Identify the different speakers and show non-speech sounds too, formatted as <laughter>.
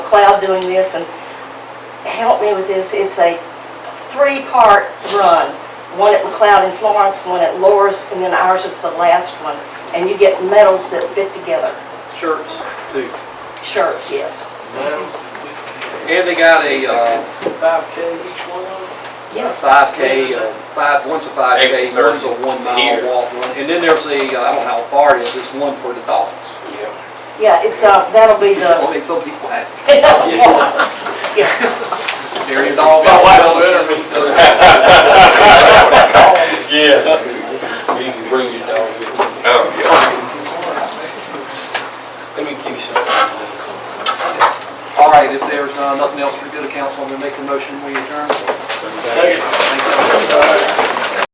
Speaker 1: Cloud doing this, and help me with this, it's a three-part run. One at McLeod in Florence, one at Loris, and then ours is the last one. And you get medals that fit together,
Speaker 2: shirts too.
Speaker 1: shirts, yes.
Speaker 2: And they got a, uh,
Speaker 3: Five K each one?
Speaker 2: a
Speaker 1: Yes,
Speaker 2: five K, uh, five, one's a five K,
Speaker 4: Eight thirty
Speaker 2: one's a one mile
Speaker 4: here.
Speaker 2: walk run. And then there's a, uh, I don't know how far it is, there's one for the dogs.
Speaker 4: Yeah.
Speaker 1: yeah, it's, uh, that'll be the,
Speaker 2: <laughs> Only some people have,
Speaker 1: <laughs> yeah,
Speaker 2: dairy dog.
Speaker 4: My wife will
Speaker 2: uh,
Speaker 4: Yes.
Speaker 3: You can bring your dog with you.
Speaker 4: Oh, yeah.
Speaker 3: Let me give you something.
Speaker 2: All right, if there's uh, nothing else for good of council, I'm gonna make a motion, we adjourn.
Speaker 3: Second.
Speaker 2: Thank you.